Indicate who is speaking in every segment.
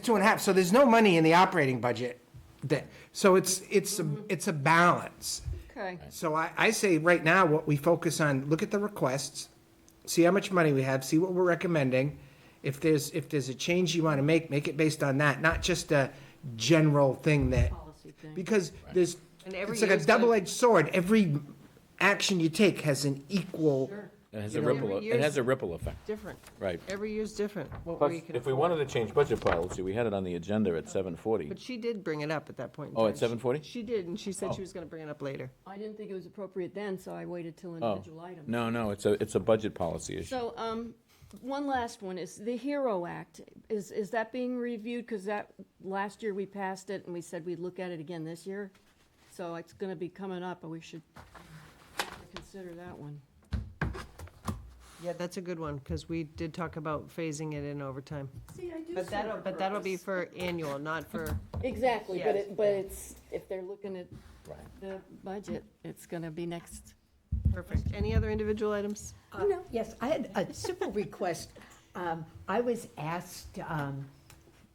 Speaker 1: two and a half, so there's no money in the operating budget. That, so it's, it's, a it's a balance.
Speaker 2: Okay.
Speaker 1: So I, I say right now, what we focus on, look at the requests, see how much money we have, see what we're recommending. If there's, if there's a change you want to make, make it based on that, not just a general thing that, because there's,
Speaker 2: And every
Speaker 1: it's like a
Speaker 2: year's gonna-
Speaker 1: double-edged sword. Every action you take has an equal,
Speaker 3: It has a
Speaker 1: know,
Speaker 3: ripple, e-,
Speaker 2: every
Speaker 3: it has
Speaker 2: year's-
Speaker 3: a ripple effect,
Speaker 2: Different.
Speaker 3: right.
Speaker 2: Every year's different, what
Speaker 3: Plus,
Speaker 2: we can.
Speaker 3: if we wanted to change budget policy, we had it on the agenda at seven forty.
Speaker 2: But she did bring it up at that point in
Speaker 3: Oh,
Speaker 2: time.
Speaker 3: at Oh. 7:40?
Speaker 2: She did, and she said she was gonna bring it up later.
Speaker 4: I didn't think it was appropriate then, so I waited till
Speaker 3: Oh,
Speaker 4: individual items.
Speaker 3: no, no, it's a, it's a budget policy issue.
Speaker 4: So, um, one last one is the HERO Act. Is, is that being reviewed? Because that, last year we passed it and we said we'd look at it again this year. So it's gonna be coming up and we should consider that one.
Speaker 2: Yeah, that's a good one, because we did talk about phasing it in over time.
Speaker 4: See, I do
Speaker 2: But that'll, but that'll be for annual, not for,
Speaker 4: Exactly, but
Speaker 2: Yes.
Speaker 4: it, but it's, if they're looking at
Speaker 3: Right.
Speaker 4: the budget, it's gonna be next.
Speaker 2: perfect. Any other individual items?
Speaker 5: Uh, Yes, I had a simple request. Um, I was asked um,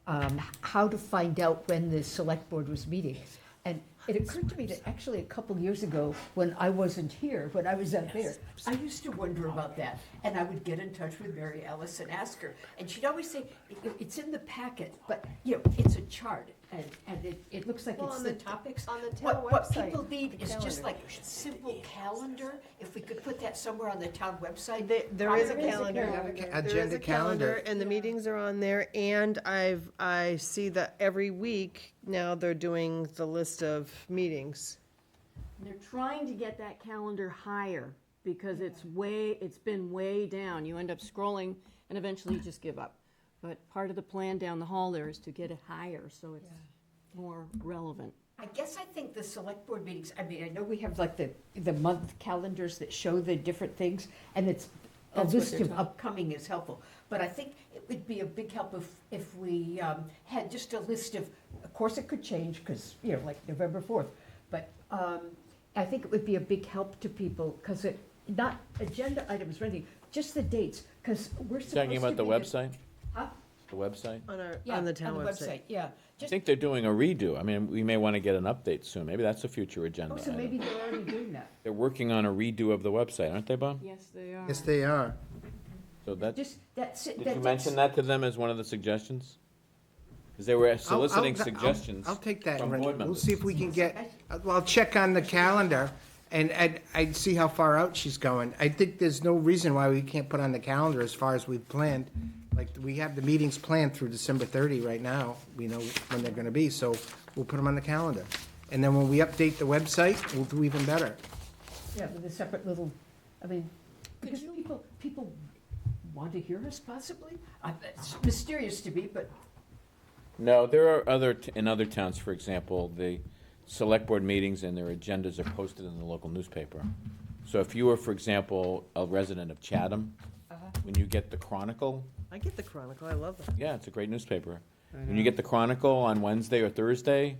Speaker 5: um, how to find out when the select board was meeting. And it occurred to me that actually a couple years ago, when I wasn't here, when I was out there, I used to wonder about that. And I would get in touch with Mary Ellis and ask her. And she'd always say, "It- it's in the packet, but, you know, it's a chart. And, and it, it looks like
Speaker 2: Well,
Speaker 5: it's
Speaker 2: on
Speaker 5: the
Speaker 2: the-
Speaker 5: topics.
Speaker 2: on the
Speaker 5: What-
Speaker 2: town
Speaker 5: What
Speaker 2: website,
Speaker 5: people need
Speaker 2: the
Speaker 5: is just
Speaker 2: calendar.
Speaker 5: like a simple calendar. If we could put that somewhere on the town website.
Speaker 2: There- there is a
Speaker 5: probably.
Speaker 2: calendar.
Speaker 1: Agenda
Speaker 2: There is a
Speaker 1: calendar.
Speaker 2: And the meetings are on there, and I've, I see that every week now they're doing the list of meetings.
Speaker 4: They're trying to get that calendar higher because it's way, it's been way down. You end up scrolling and eventually you just give up. But part of the plan down the hall there is to get it higher, so it's more relevant.
Speaker 5: I guess I think the select board meetings, I mean, I know we have like the, the month calendars that show the different things, and it's, a
Speaker 4: That's what
Speaker 5: list
Speaker 4: they're
Speaker 5: of
Speaker 4: talking-
Speaker 5: upcoming is helpful. But I think it would be a big help if, if we um, had just a list of, of course, it could change, because, you know, like November 4th. But um, I think it would be a big help to people, because it, not agenda items or anything, just the dates, because we're supposed to
Speaker 3: Talking about the
Speaker 5: be
Speaker 3: website,
Speaker 5: Huh?
Speaker 3: the website?
Speaker 2: On our,
Speaker 5: Yeah,
Speaker 2: on the town website.
Speaker 5: Yeah,
Speaker 3: I
Speaker 5: just,
Speaker 3: think they're doing a redo. I mean, we may want to get an update soon. Maybe that's a future agenda
Speaker 5: oh, so
Speaker 3: item.
Speaker 5: maybe they're already doing that.
Speaker 3: They're working on a redo of the website, aren't they, Bob?
Speaker 4: Yes, they are.
Speaker 1: yes, they are.
Speaker 3: So that, did
Speaker 5: Just, that's. it,
Speaker 3: you
Speaker 5: that's-
Speaker 3: mention that to them as one of the suggestions? Because they were
Speaker 1: I'll- I'll-
Speaker 3: soliciting
Speaker 1: I'll-
Speaker 3: suggestions.
Speaker 1: I'll take that,
Speaker 3: from
Speaker 1: Rich.
Speaker 3: board
Speaker 1: We'll
Speaker 3: members.
Speaker 1: see if we can get, well, I'll check on the calendar and I'd, I'd see how far out she's going. I think there's no reason why we can't put on the calendar as far as we've planned. Like, we have the meetings planned through December thirty right now. We know when they're gonna be, so we'll put them on the calendar. And then when we update the website, we'll do even better.
Speaker 5: Yeah, with a separate little, I mean, because people, people want to hear us possibly? I- It's mysterious to me, but
Speaker 3: No, there are other, t- in other towns, for example, the select board meetings and their agendas are posted in the local newspaper. So if you were, for example, a resident of Chatham, when you get the Chronicle,
Speaker 2: I get the Chronicle, I love that.
Speaker 3: yeah, it's a great newspaper. When you get the Chronicle on Wednesday or Thursday,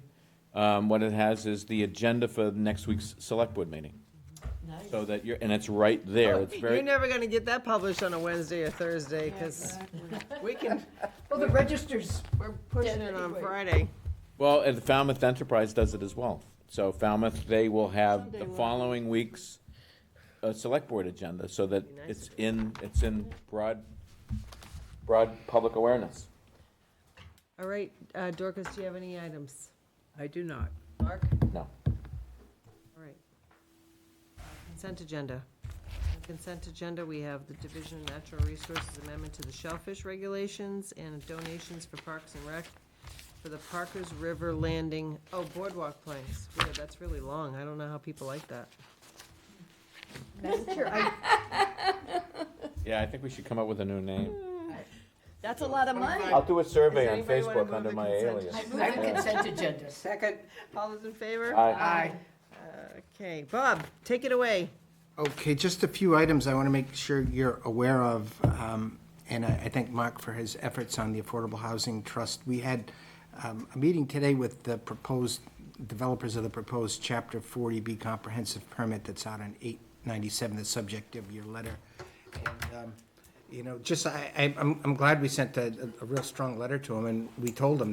Speaker 3: um, what it has is the agenda for next week's select board meeting. So that you're, and it's right there, it's
Speaker 2: You're
Speaker 3: very,
Speaker 2: never gonna get that published on a Wednesday or Thursday, because we can,
Speaker 5: well, the registers
Speaker 2: we're pushing it on Friday.
Speaker 3: well, and Falmouth Enterprise does it as well. So Falmouth, they will have
Speaker 4: Someday
Speaker 3: the
Speaker 4: we'll-
Speaker 3: following week's, uh, select board agenda, so that
Speaker 2: Be nice
Speaker 3: it's in, it's in broad, broad public awareness.
Speaker 2: All right, uh, Dorcas, do you have any items?
Speaker 6: I do not.
Speaker 2: Mark?
Speaker 3: No.
Speaker 2: All right. Consent agenda. On Consent agenda, we have the Division of Natural Resources Amendment to the Shellfish Regulations and donations for Parks and Rec for the Parkers River Landing, oh, boardwalk planks. Weird, that's really long. I don't know how people like that.
Speaker 5: Madam Chair, I,
Speaker 3: Yeah, I think we should come up with a new name.
Speaker 4: That's a lot of money.
Speaker 3: I'll do a survey on
Speaker 2: anybody wanna
Speaker 3: Facebook
Speaker 2: move
Speaker 3: under
Speaker 2: the
Speaker 3: my
Speaker 2: consent?
Speaker 3: alias.
Speaker 5: I move on consent agenda.
Speaker 2: Second. All those in favor?
Speaker 3: Aye.
Speaker 2: Okay, Bob, take it away.
Speaker 1: Okay, just a few items I want to make sure you're aware of, um, and I I thank Mark for his efforts on the Affordable Housing Trust. We had um, a meeting today with the proposed, developers of the proposed Chapter 40B comprehensive permit that's out on 897, the subject of your letter. And um, you know, just, I, I- I'm, I'm glad we sent a, a- a real strong letter to him, and we told him